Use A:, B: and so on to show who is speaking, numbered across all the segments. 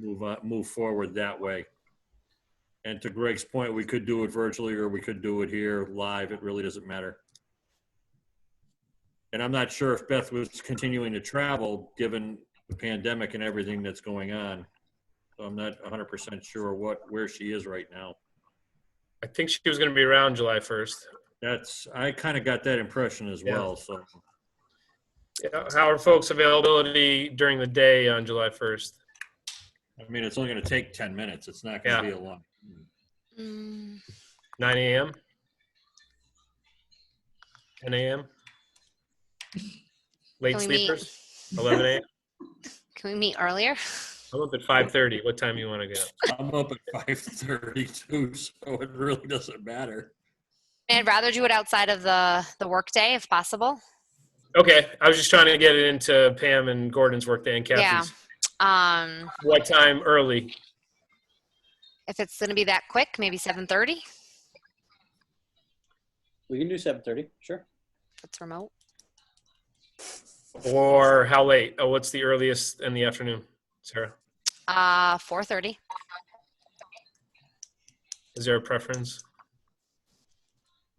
A: move on, move forward that way. And to Greg's point, we could do it virtually or we could do it here live. It really doesn't matter. And I'm not sure if Beth was continuing to travel, given the pandemic and everything that's going on. So I'm not 100% sure what, where she is right now.
B: I think she was going to be around July 1st.
A: That's, I kind of got that impression as
B: Yeah.
A: well, so.
B: Yeah, How are folks' availability during the day on July 1st?
A: I mean, it's only going to take 10 minutes. It's not going to be a long.
B: 9 a.m.? 10 a.m.? Late
C: Can we meet?
B: sleepers? 11 a.m.?
C: Can we meet earlier?
B: I'm up at 5:30. What time you want to get up?
A: I'm up at 5:32, so it really doesn't matter.
C: I'd rather do it outside of the the workday if possible.
B: Okay, I was just trying to get it into Pam and Gordon's workday and Kathy's.
C: Um,
B: What time early?
C: if it's going to be that quick, maybe seven thirty.
D: We can do seven thirty, sure.
C: It's remote.
B: Or how late? Oh, what's the earliest in the afternoon, Sarah?
C: Uh, four thirty.
B: Is there a preference?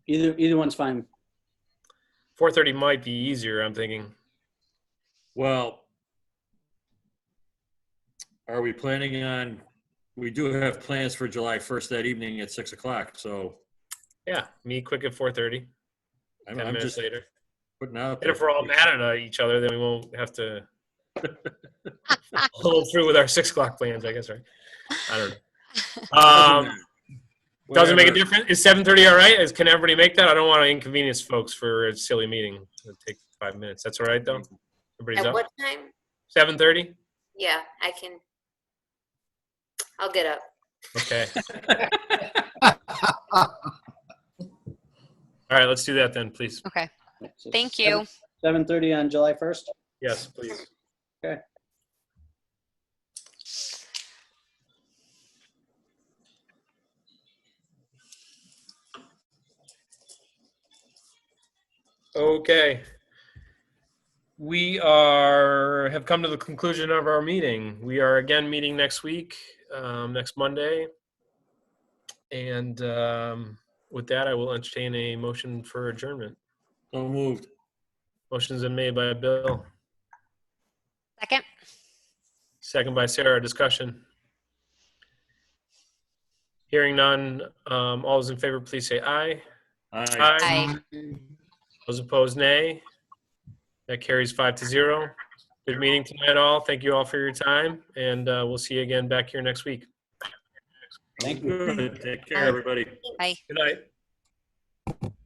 D: Either either one's fine.
B: 4:30 might be easier. I'm thinking.
A: Well, are we planning on, we do have plans for July 1st that evening at 6 o'clock, so
B: Yeah, me quick at 4:30.
A: I'm
B: Ten
A: I'm
B: minutes
A: just
B: later.
A: putting out.
B: And if we're all
A: there.
B: mad at each other, then we won't have to hold through with our six o'clock plans. I guess, right? I don't know. Um, Doesn't make a
A: Whatever.
B: difference. Is seven thirty all right? Is, can everybody make that? I don't want to inconvenience folks for a silly meeting. It'll take five minutes. That's all right though. Everybody's
E: At
B: up.
E: what time?
B: Seven thirty.
E: Yeah, I can. I'll get up.
B: Okay. all right. Let's do that then, please.
C: Okay. Thank you.
D: Seven thirty on July first.
B: Yes, please.
D: Okay.
B: Okay. We are have come to the conclusion of our meeting. We are again meeting next week, um, next Monday. And um, with that, I will entertain a motion for adjournment.
A: So moved.
B: Motion's been made by Bill,
C: Second.
B: second by Sarah. Discussion. Hearing none. Um, all those in favor, please say aye. Uh,
A: Aye.
C: Aye.
B: Those opposed, nay. That carries five to zero. Good meeting tonight, all. Thank you all for your time, and uh, we'll see you again back here next week.
D: Thank you.
A: Good. Take care, everybody.
B: Good night.